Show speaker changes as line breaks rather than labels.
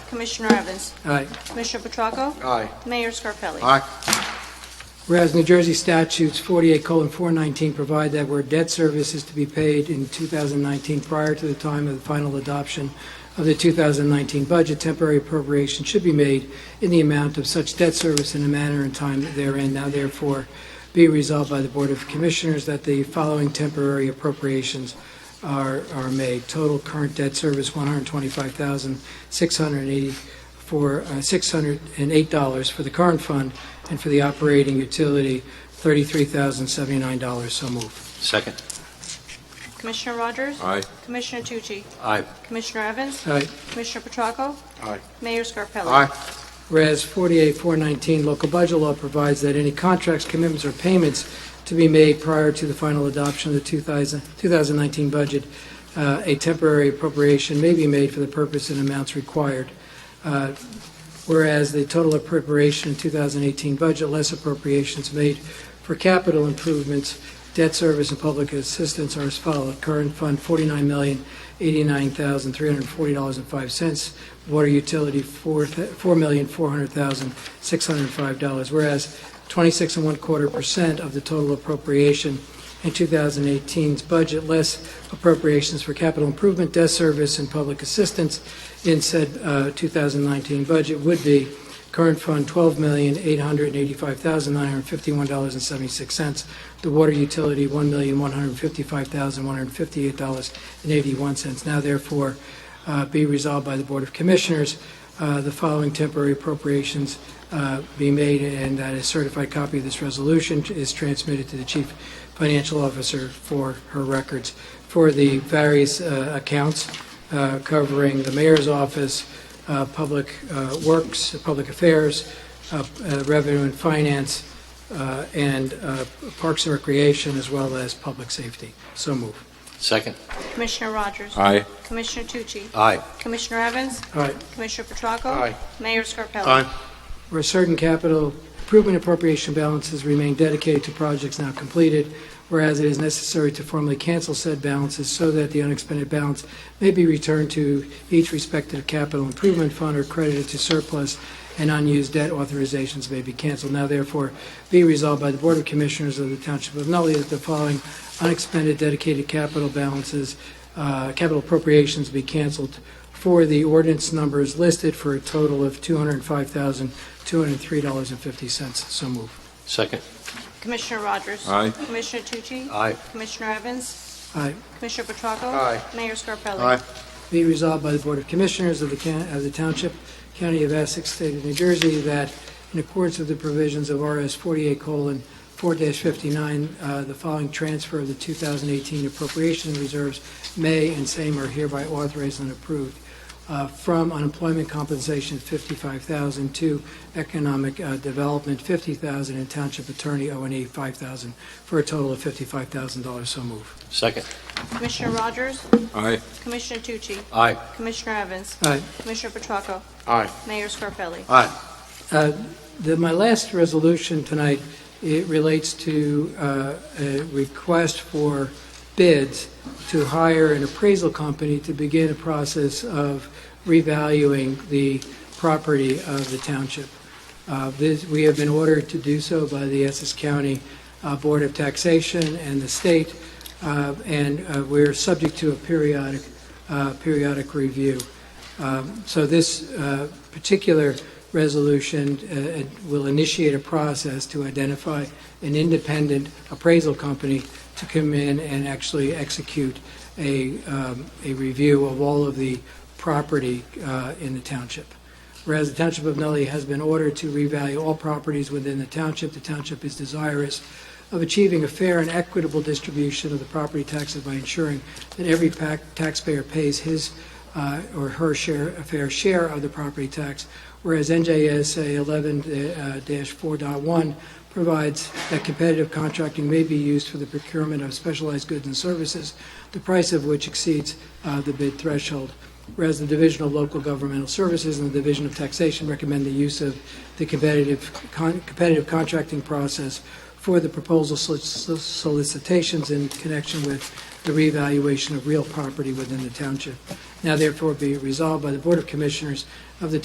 Commissioner Evans?
Aye.
Commissioner Petracco?
Aye.
Mayor Scarpelli?
Aye.
Whereas New Jersey statutes 48:419 provide that where debt service is to be paid in 2019 prior to the time of the final adoption of the 2019 budget, temporary appropriation should be made in the amount of such debt service in the manner and time therein. Now therefore be resolved by the Board of Commissioners that the following temporary appropriations are are made. Total current debt service, $125,680 for uh, $608 for the current fund, and for the operating utility, $33,079. So move.
Second.
Commissioner Rogers?
Aye.
Commissioner Tucci?
Aye.
Commissioner Evans?
All right.
Commissioner Petracco?
Aye.
Mayor Scarpelli?
Whereas 48419 local budget law provides that any contracts, commitments, or payments to be made prior to the final adoption of the 2000 2019 budget, uh, a temporary appropriation may be made for the purpose and amounts required. Uh, Whereas the total appropriation in 2018 budget, less appropriations made for capital improvements, debt service, and public assistance are as follows. Current fund, $49,089,340.05. Water utility, four th- $4,400,605. Whereas 26 and one quarter percent of the total appropriation in 2018's budget, less appropriations for capital improvement, debt service, and public assistance in said uh, 2019 budget would be current fund $12,885,951.76, the water utility $1,155,158.81. Now therefore uh, be resolved by the Board of Commissioners, uh, the following temporary appropriations uh, be made, and that a certified copy of this resolution is transmitted to the Chief Financial Officer for her records for the various uh, accounts uh, covering the mayor's office, uh, public uh, works, public affairs, uh, uh, revenue and finance, uh, and uh, parks and recreation, as well as public safety. So move.
Second.
Commissioner Rogers?
Aye.
Commissioner Tucci?
Aye.
Commissioner Evans?
All right.
Commissioner Petracco?
Aye.
Mayor Scarpelli?
where certain capital improvement appropriation balances remain dedicated to projects now completed, whereas it is necessary to formally cancel said balances so that the unexpended balance may be returned to each respective capital improvement fund or credited to surplus, and unused debt authorizations may be canceled. Now therefore be resolved by the Board of Commissioners of the Township of Nutley that the following unexpended dedicated capital balances, uh, capital appropriations be canceled for the ordinance numbers listed for a total of $205,203.50. So move.
Second.
Commissioner Rogers?
Aye.
Commissioner Tucci?
Aye.
Commissioner Evans?
Aye.
Commissioner Petracco?
Aye.
Mayor Scarpelli?
Be resolved by the Board of Commissioners of the Coun- of the Township, County of Essex, State of New Jersey, that in accordance with the provisions of RS 48:4-59, uh, the following transfer of the 2018 appropriation reserves may and same are hereby authorized and approved uh, from unemployment compensation 55000 to economic uh, development 50000 and township attorney O&E 5000 for a total of $55,000. So move.
Second.
Commissioner Rogers?
Aye.
Commissioner Tucci?
Aye.
Commissioner Evans?
All right.
Commissioner Petracco?
Aye.
Mayor Scarpelli?
Aye.
Uh, the- My last resolution tonight, it relates to uh, a request for bids to hire an appraisal company to begin a process of revaluing the property of the township. Uh, this- We have been ordered to do so by the Essex County uh, Board of Taxation and the state, uh, and uh, we're subject to a periodic, uh, periodic review. Um, So this uh, particular resolution uh, it will initiate a process to identify an independent appraisal company to come in and actually execute a, um, a review of all of the property uh, in the township. Whereas the Township of Nutley has been ordered to revalue all properties within the township, the township is desirous of achieving a fair and equitable distribution of the property taxes by ensuring that every pac- taxpayer pays his uh, or her share, a fair share of the property tax, whereas NJSA uh, 11-4.1 provides that competitive contracting may be used for the procurement of specialized goods and services, the price of which exceeds uh, the bid threshold. Whereas the Division of Local Governmental Services and the Division of Taxation recommend the use of the competitive, con- competitive contracting process for the proposal solic- solicitations in connection with the reevaluation of real property within the township. Now therefore be resolved by the Board of Commissioners of the